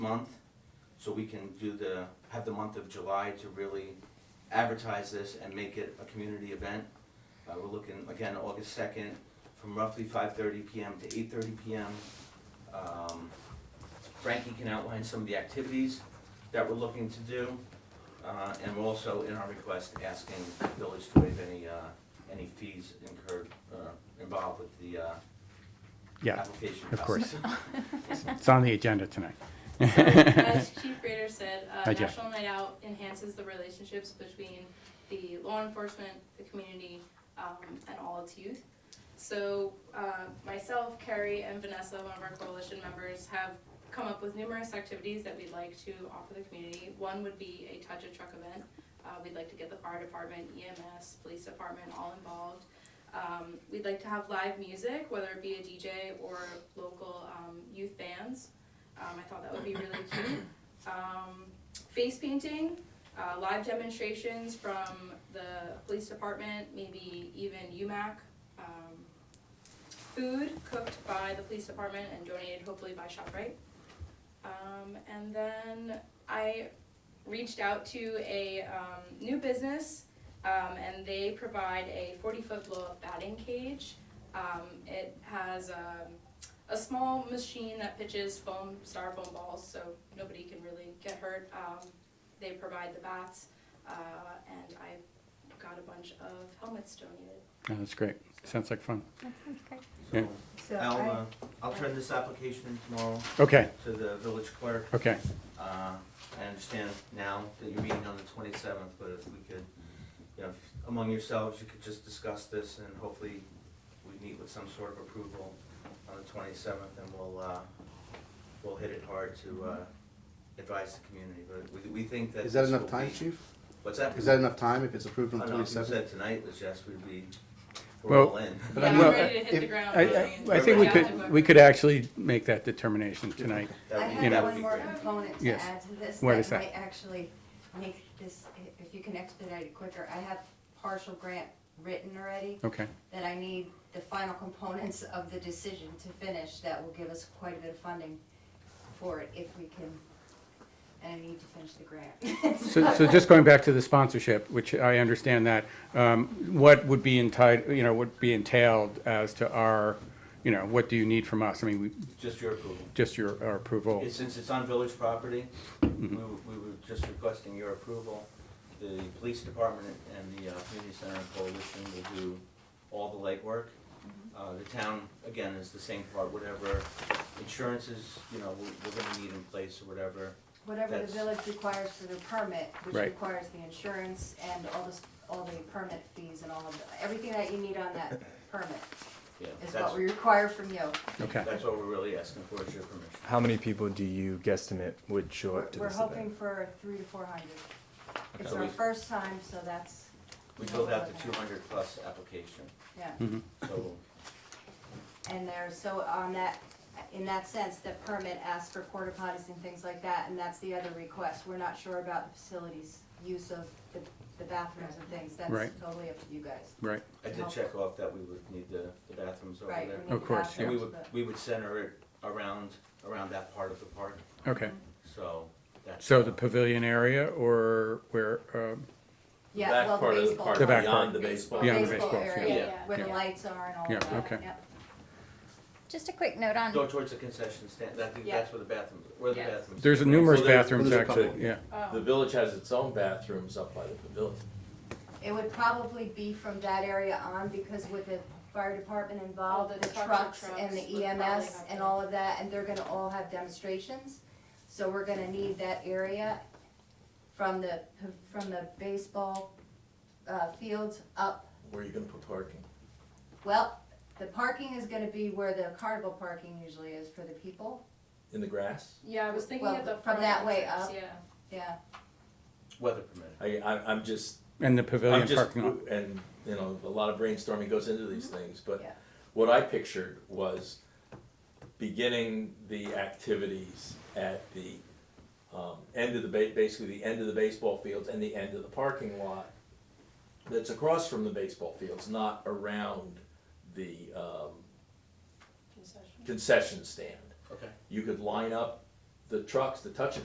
month, so we can do the, have the month of July to really advertise this and make it a community event. Uh, we're looking, again, August second, from roughly five thirty PM to eight thirty PM. Um, Frankie can outline some of the activities that we're looking to do. Uh, and we're also in our request asking the village to waive any, uh, any fees incurred, uh, involved with the, uh, Yeah, application of course. process. it's on the agenda tonight. As Chief Rader said, uh, Hi, Jeff. National Night Out enhances the relationships between the law enforcement, the community, um, and all its youth. So, uh, myself, Carrie, and Vanessa, one of our coalition members, have come up with numerous activities that we'd like to offer the community. One would be a Touch a Truck event. Uh, we'd like to get the fire department, EMS, police department all involved. Um, we'd like to have live music, whether it be a DJ or local, um, youth bands. Um, I thought that would be really cute. Um, face painting, uh, live demonstrations from the police department, maybe even UMAC. Um, food cooked by the police department and donated hopefully by ShopRite. Um, and then I reached out to a um, new business um, and they provide a 40 foot blow up batting cage. Um, it has um, a small machine that pitches foam, styrofoam balls, so nobody can really get hurt. Um, they provide the bats, uh, and I got a bunch of helmets donated. Yeah, That's great. Sounds like fun. That sounds great. Yeah. So, So I'll, I, uh, I'll turn this application in tomorrow Okay, to the village clerk. okay. Uh, I understand now that you're meeting on the twenty-seventh, but if we could, you know, if among yourselves, you could just discuss this and hopefully we meet with some sort of approval on the twenty-seventh and we'll, uh, we'll hit it hard to, uh, advise the community, but we, we think that. Is that this enough will time, be- chief? What's that? Is that enough time if it's approved I on don't know, if you twenty-seventh? said tonight was yes, we'd be, we're Well, all in. But yeah, I I'm mean- ready to hit the if- ground. I, running. I- I think we could, we could actually make that determination tonight. That I would- you know- that have would one be more great. component to Yes. add to this What is that that? might actually make this, i- if you can expedite it quicker. I have partial grant written already Okay, that I need the final components of the decision to finish that will give us quite a bit of funding for it if we can, and I need to finish the grant. so, so just going back to the sponsorship, which I understand that, um, what would be entitled, you know, would be entailed as to our, you know, what do you need from us? I mean, we, Just your approval. just your, our approval. It- Since it's on village property, we Mm-hmm. were we were just requesting your approval. The police department and the uh, community center and coalition will do all the legwork. Mm-hmm. Uh, The town, again, is the same part, whatever insurances, you know, we- we're gonna need in place or whatever. Whatever the That's- village requires for their permit, which Right. requires the insurance and all this, all the permit fees and all of, the- everything that you need on that permit Yeah, is that's- what we require from you. Okay, That's what we're really asking for, is your permission. How many people do you guesstimate would show We're up to we're this hoping event? for three to four hundred. It's So our we- first time, so that's, We filled out the 200-plus application, yeah. Mm-hmm. so Hmm. And there's, so on that, in that sense, the permit asks for porta potties and things like that, and that's the other request. We're not sure about the facilities, use of the the bathrooms and things. That's Right. totally up to you guys. right, I did check off that we would need the the bathrooms over Right, there. we need Of the course, bathrooms, yeah. And we would, but- we would center it around, around that part of the park, okay. so that's. So the pavilion area or where, um, Yeah, well, the baseball. The back beyond part. the baseball. Beyond the Baseball baseball area, field. Yeah. Where the Yeah. lights are and all Yeah, of that, okay. yep. Just a quick note Go on, towards the concession stand, I think Yeah. that's where the bathrooms, where the Yeah. bathrooms. there's are. numerous So there's- bathrooms there's a couple. actually, yeah. The Um, village has its own bathrooms up by the pavilion. It would probably be from that area on, because with the fire department All involved, Oh, the the trucks trucks and would the probably EMS have and to- all of that, and they're gonna all have demonstrations. So we're gonna need that area from the, from the baseball, uh, fields up. Where are you gonna put parking? Well, the parking is gonna be where the carnival parking usually is for the people, In the grass? Yeah, I was thinking Well, of the from front that way entrance, up. Yeah. yeah. Weather permitting. I, I, I'm just, And the pavilion I'm just, parking lot. and, you know, a lot of brainstorming goes into these things, but Yeah. what I pictured was beginning the activities at the, um, end of the ba- basically the end of the baseball fields and the end of the parking lot that's across from the baseball fields, not around the, um, Concession. concession stand. Okay. You could line up the trucks, the touch